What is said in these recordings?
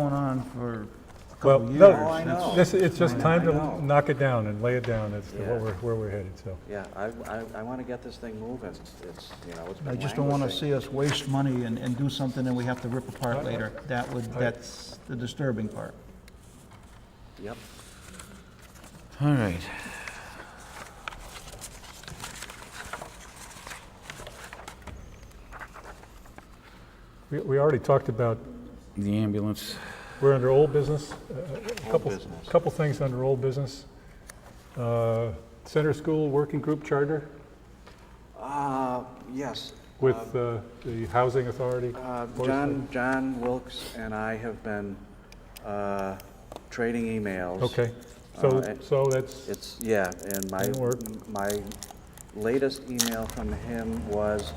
going on for a Well, couple years. no, Oh, I That's- know. this, it's just I time know. to knock it down and lay it down as to Yeah. what we're, where we're headed, so. Yeah, I, I, I want to get this thing moving. It's, you know, it's been I just don't want to languishing. see us waste money and, and do something that we have to rip apart later. That would, that's the disturbing part. Yep. All right. We, we already talked about, The ambulance. we're under old business, uh, a- a- a couple, business. couple things under old business. Uh, Center School Working Group Charter Uh, yes. with uh, the Housing Authority. Uh, Board of John, John Wilkes and I have been, uh, trading emails. Selectmen. Okay, Uh, so, it- so that's, It's, yeah, and my, Didn't work. my latest email from him was,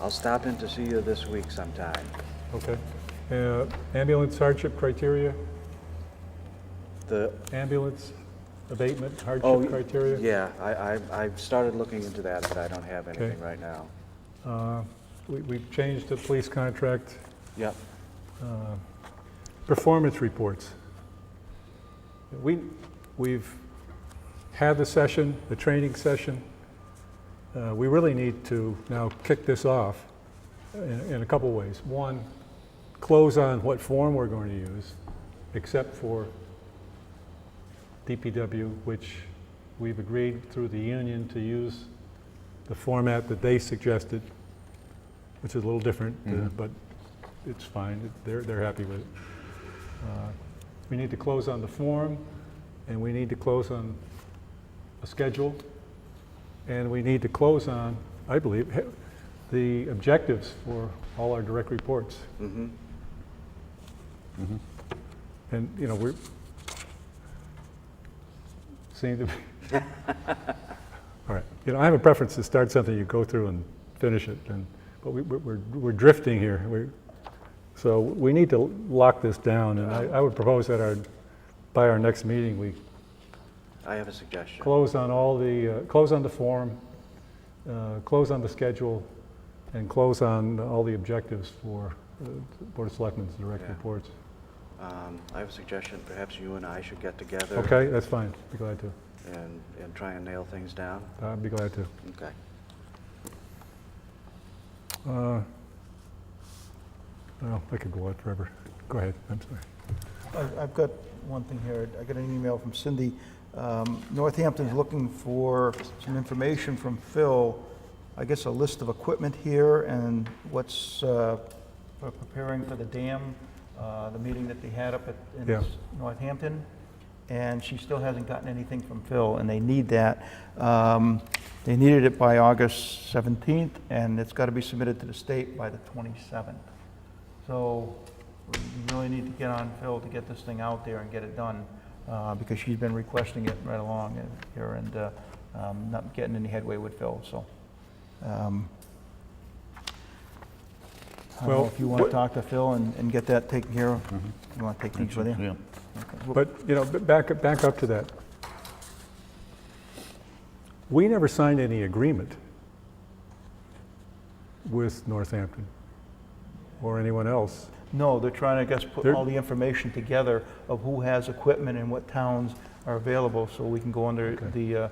I'll stop in to see you this week sometime. okay. Uh, Ambulance hardship criteria, The, ambulance abatement oh, hardship criteria. yeah, I, I, I've started looking into that, but I don't have anything Okay. right now. Uh, we- We've changed the police contract, Yep, uh, performance reports. We, we've had the session, the training session. Uh, We really need to now kick this off in in a couple ways. One, close on what form we're going to use, except for DPW, which we've agreed through the union to use the format that they suggested, which is a little different, uh, but it's fine. They're, they're happy with it. Uh, We need to close on the form, and we need to close on a schedule, and we need to close on, I believe, he- the objectives for all our direct reports. Mm-hmm. mm-hmm. And, you know, we're, seem to be, all right. You know, I have a preference to start something, you go through and finish it, and, but we, we're- we're, we're drifting here. We're, so we need to lock this down, and I, I would propose that our, by our next meeting, we I have a suggestion. close on all the, uh, close on the form, uh, close on the schedule, and close on all the objectives for uh, Board of Selectmen's direct Yeah. reports. Um, I have a suggestion, perhaps you and I should get together. Okay, that's fine, be glad to. And, and try and nail things down? I'd be glad to. Okay. Uh, No, I could go on forever. Go ahead, I'm sorry. I- I've got one thing here. I got an email from Cindy. Um, Northampton's looking for some information from Phil, I guess a list of equipment here and what's uh, for preparing for the dam, uh, the meeting that they had up at, Yeah. in Northampton. And she still hasn't gotten anything from Phil, and they need that. Um, They needed it by August 17th, and it's got to be submitted to the state by the 27th. So we really need to get on Phil to get this thing out there and get it done, uh, because she's been requesting it right along and- here and uh, um, not getting any headway with Phil, so. um, I don't Well, know if you want what- Mm-hmm. to talk to Phil and and get that taken care of. You want to take things with you? Yeah. Okay. Well, But, you know, b- back, up- back up to that. We never signed any agreement with Northampton or anyone else. No, they're trying to, I guess, put They're- all the information together of who has equipment and what towns are available, so we can go under Okay. the uh,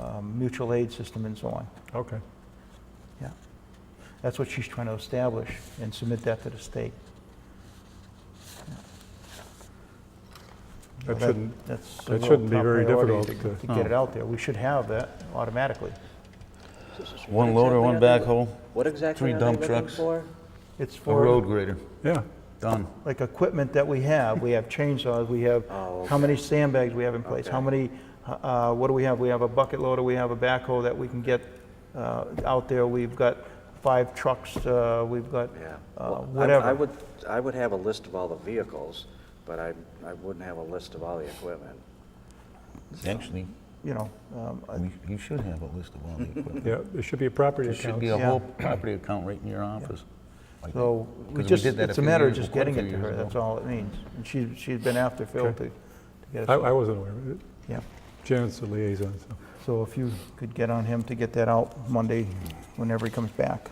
um, mutual aid system and so on. Okay. That's what she's trying to establish and submit that to the state. That So shouldn't, that's a that real shouldn't be top very priority difficult To to- Oh. to get it out there. We should have that automatically. One loader, one backhoe, What exactly Three are they dump looking trucks. for? It's a road for, grader. yeah. Done. like, equipment that we have. We have chainsaws, we have, Oh, how many sandbags we have in place, how Okay. many, uh, what do we have? We have a bucket loader, we have a backhoe that we can get uh, out there. We've got five trucks, uh, we've got Yeah. uh, Well, I- I whatever. would, I would have a list of all the vehicles, but I, I wouldn't have a list of all the equipment. Actually, You know, um, I- we- you should have a list of all the equipment. Yeah, there should be a property There account. should be a Yeah. whole property account right in your office. Like- So we because just, did that it's a few matter of years- just quite a getting few it to years her, ago. that's all it means. And she, she's been after Phil to Okay. to get I, us. I wasn't aware of it. Yeah, Janet's the liaison, so. so if you could get on him to get that out Monday, whenever he comes back.